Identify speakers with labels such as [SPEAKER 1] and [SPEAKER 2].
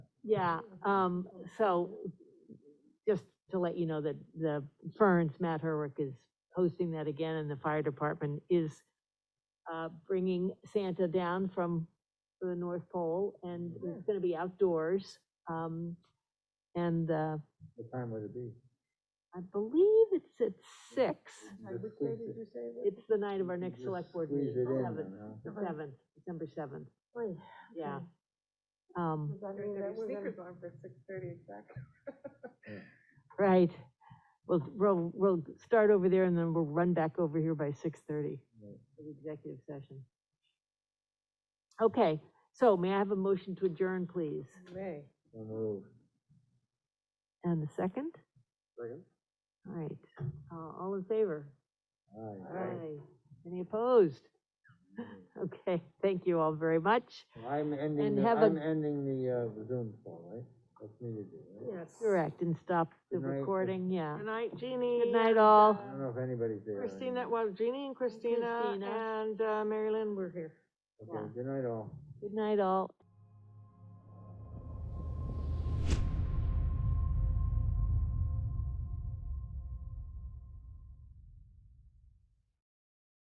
[SPEAKER 1] Yeah, um, so just to let you know that the Ferns, Matt Herwick is hosting that again and the fire department is uh, bringing Santa down from the North Pole and it's gonna be outdoors. Um, and, uh,
[SPEAKER 2] What time would it be?
[SPEAKER 1] I believe it's at six.
[SPEAKER 2] Sorry, which day did you
[SPEAKER 3] say?
[SPEAKER 1] It's the night of our
[SPEAKER 2] You
[SPEAKER 1] next
[SPEAKER 2] just
[SPEAKER 1] select board
[SPEAKER 2] squeeze
[SPEAKER 1] meeting,
[SPEAKER 2] it in,
[SPEAKER 1] seventh,
[SPEAKER 2] huh?
[SPEAKER 1] the seventh, December seventh,
[SPEAKER 3] Does
[SPEAKER 1] yeah.
[SPEAKER 3] okay.
[SPEAKER 1] Um,
[SPEAKER 3] that mean that we're gonna? on for six thirty exactly.
[SPEAKER 1] Right. We'll, we'll, we'll start over there and then we'll run back over here by six thirty
[SPEAKER 2] Right.
[SPEAKER 1] for the executive session. Okay, so may I have a motion to adjourn, please?
[SPEAKER 3] May.
[SPEAKER 2] So moved.
[SPEAKER 1] And a second?
[SPEAKER 2] Second?
[SPEAKER 1] All right, uh, all in favor?
[SPEAKER 2] Aye.
[SPEAKER 1] Aye. Any opposed? Okay, thank you all very much.
[SPEAKER 2] So I'm ending,
[SPEAKER 1] And
[SPEAKER 2] the-
[SPEAKER 1] have a-
[SPEAKER 2] I'm ending the, uh, the Zoom call, right? That's me to do, right?
[SPEAKER 3] Yes.
[SPEAKER 1] Correct, and stop the
[SPEAKER 2] Good night.
[SPEAKER 1] recording, yeah.
[SPEAKER 3] Good night, Jeannie.
[SPEAKER 1] Good night,
[SPEAKER 3] and,
[SPEAKER 1] all.
[SPEAKER 2] I
[SPEAKER 3] uh,
[SPEAKER 2] don't know if anybody's there. or
[SPEAKER 3] Christina,
[SPEAKER 2] not.
[SPEAKER 3] well, Jeannie and Christina
[SPEAKER 1] Christina.
[SPEAKER 3] and uh, Mary Lynn were here.
[SPEAKER 2] Okay, good night all.
[SPEAKER 1] Good night all.